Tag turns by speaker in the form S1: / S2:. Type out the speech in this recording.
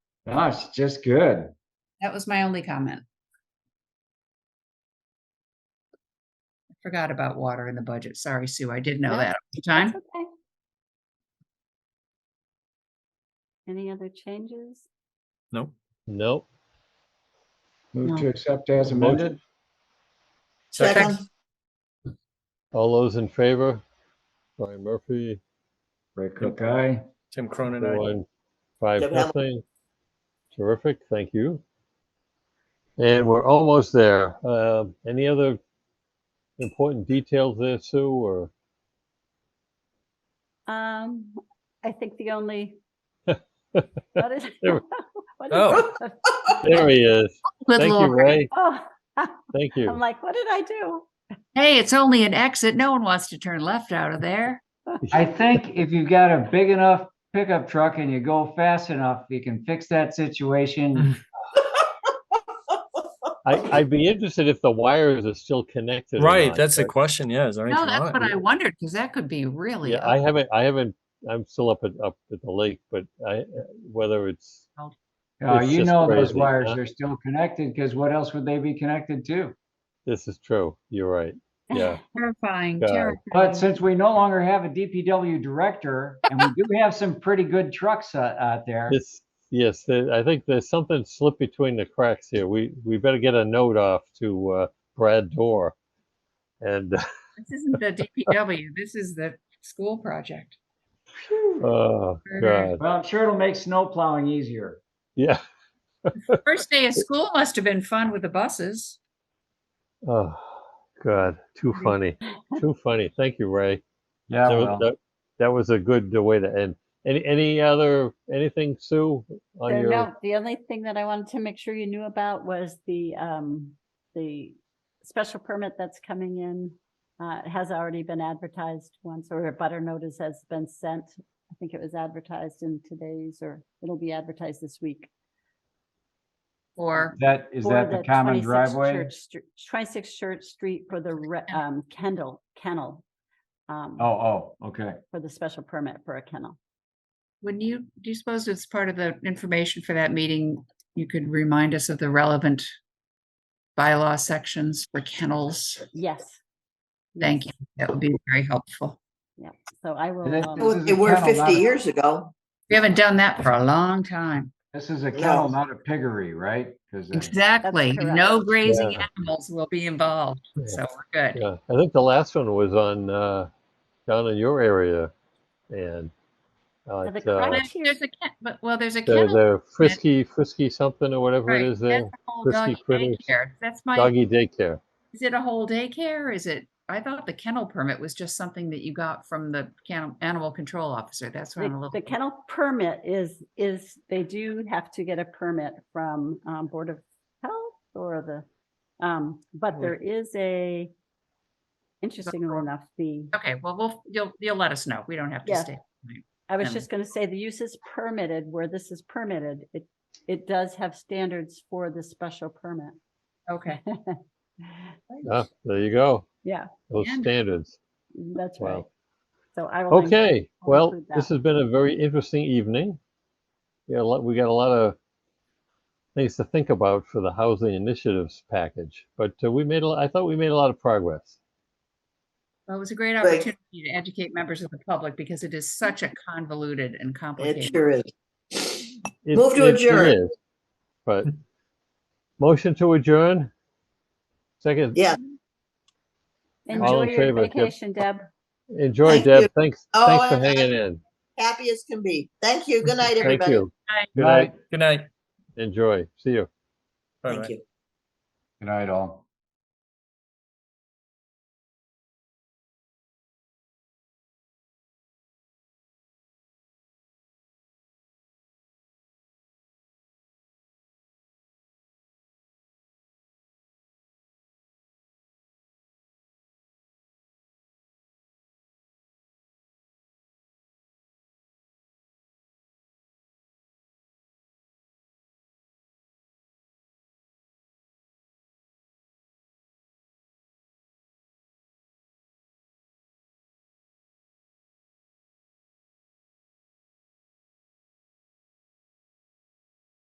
S1: No, it's just good.
S2: That was my only comment. I Forgot about water in the budget. Sorry, Sue. I did know
S3: No,
S2: that. at the
S3: That's
S2: Time?
S3: okay. Any other changes?
S4: Nope.
S5: Nope.
S1: Move
S2: No.
S1: to accept as
S5: Motion.
S1: amended.
S2: Second.
S5: All those in favor? Brian Murphy,
S1: Ray Cook, aye.
S4: Tim Cronin, aye.
S5: one, five,
S6: Deb Hamilton.
S5: nothing. Terrific, thank you. And we're almost there. Uh, Any other important details there, Sue, or?
S3: Um, I think the only. What is?
S5: There we-
S3: what is-
S4: Oh.
S5: There he is.
S2: Good
S5: Thank you,
S2: lord.
S5: Ray.
S3: Oh,
S5: Thank
S3: I'm
S5: you.
S3: like, what did I do?
S2: Hey, it's only an exit. No one wants to turn left out of there.
S1: I think if you've got a big enough pickup truck and you go fast enough, you can fix that situation.
S5: I, I'd be interested if the wires are still connected. or
S4: Right,
S5: not,
S4: that's the
S5: but-
S4: question, yeah, is there
S2: No,
S4: anything
S2: that's what I
S4: on?
S2: wondered because that could be really.
S5: Yeah, I haven't, I haven't, I'm still up at, up at the lake, but I, whether it's,
S1: Uh,
S5: It's
S1: you
S5: just
S1: know those
S5: crazy,
S1: wires
S5: huh?
S1: are still connected because what else would they be connected to?
S5: this is true, you're right. Yeah,
S2: Terrifying,
S5: God.
S2: terrifying.
S1: But since we no longer have a DPW director and we do have some pretty good trucks out, out there.
S5: this, yes, there- I think there's something slipped between the cracks here. We, we better get a note off to uh, Brad Dorr. And,
S2: This isn't the DPW. This is the school project.
S5: oh, God,
S1: Well, I'm sure it'll make snow plowing easier.
S5: yeah.
S2: First day of school must have been fun with the buses.
S5: Oh, God, too funny, too funny. Thank you, Ray.
S1: Yeah.
S5: That
S1: well.
S5: was, that, that was a good uh, way to end. Any, any other, anything, Sue, on
S3: There-
S5: your?
S3: Uh, No, the only thing that I wanted to make sure you knew about was the, um, the special permit that's coming in. Uh, it has already been advertised once, or a butter notice has been sent. I think it was advertised in today's, or it'll be advertised this week.
S2: Or
S1: That, is
S3: for
S1: that the common
S3: 26
S1: driveway?
S3: Church Stre- Twenty-six Church Street for the, re- um, Kendall, kennel. um,
S1: Oh, oh, okay.
S3: For the special permit for a kennel.
S2: when you, do you suppose it's part of the information for that meeting? You could remind us of the relevant bylaw sections for kennels.
S3: Yes.
S2: Thank
S3: yes.
S2: you. That would be very helpful.
S3: So I will.
S1: This-
S3: um,
S1: this is a
S6: They were
S1: kennel, not
S6: 50
S1: a-
S6: years ago.
S2: We haven't done that for a long time.
S1: This is a kennel,
S6: No.
S1: not a piggery, right? 'Cause, uh,
S2: Exactly.
S3: correct.
S2: No grazing animals will be involved. So we're good.
S5: Yeah, I think the last one was on, uh, down in your area, and. uh,
S3: the
S5: it's, uh,
S3: crunch-
S2: There's there's a, ken- but well, there's a
S5: The,
S2: kennel.
S5: the frisky, frisky something or whatever
S2: right,
S5: it is there,
S2: that's a whole
S5: Frisky
S2: doggy
S5: critters.
S2: daycare. That's my,
S5: doggy daycare.
S2: is it a whole daycare? Is it, I thought the kennel permit was just something that you got from the can- animal control officer. That's what I'm a
S3: The
S2: little.
S3: the kennel permit is, is, they do have to get a permit from um, Board of Health or the, um, but there is a, interestingly enough, the,
S2: Okay, well, we'll, you'll, you'll let us know. We don't have to
S3: Yeah.
S2: stay.
S3: I was
S2: Um,
S3: just going to say, the use is permitted where this is permitted. It, it does have standards for the special permit.
S2: Okay.
S5: Ah, there you go,
S3: Yeah,
S5: those
S2: And-
S5: standards.
S3: that's
S5: Wow.
S3: right. So I will. link-
S5: Okay,
S3: I'll
S5: well,
S3: include
S5: this
S3: that.
S5: has been a very interesting evening. Yeah, a lot- we got a lot of things to think about for the housing initiatives package, but uh, we made, a- I thought we made a lot of progress.
S2: Well, it was a great
S6: Right.
S2: opportunity to educate members of the public because it is such a convoluted and
S6: It
S2: complicated.
S6: sure is.
S5: It-
S6: Move to
S5: it- it
S6: adjourn.
S5: is, But motion to adjourn? Second,
S6: Yeah.
S5: All
S3: Enjoy
S5: in
S3: your
S5: favor, Deb.
S3: vacation, Deb.
S5: enjoy
S6: Thank you.
S5: Deb, thanks,
S6: Oh,
S5: thanks for
S6: and I-
S5: hanging in.
S6: Happy as can be. Thank you. Good night,
S5: Thank
S6: everybody.
S5: you.
S1: Night.
S5: Good night,
S4: Good night.
S5: enjoy, see you.
S4: Bye-bye.
S6: Thank you.
S1: Good night, all.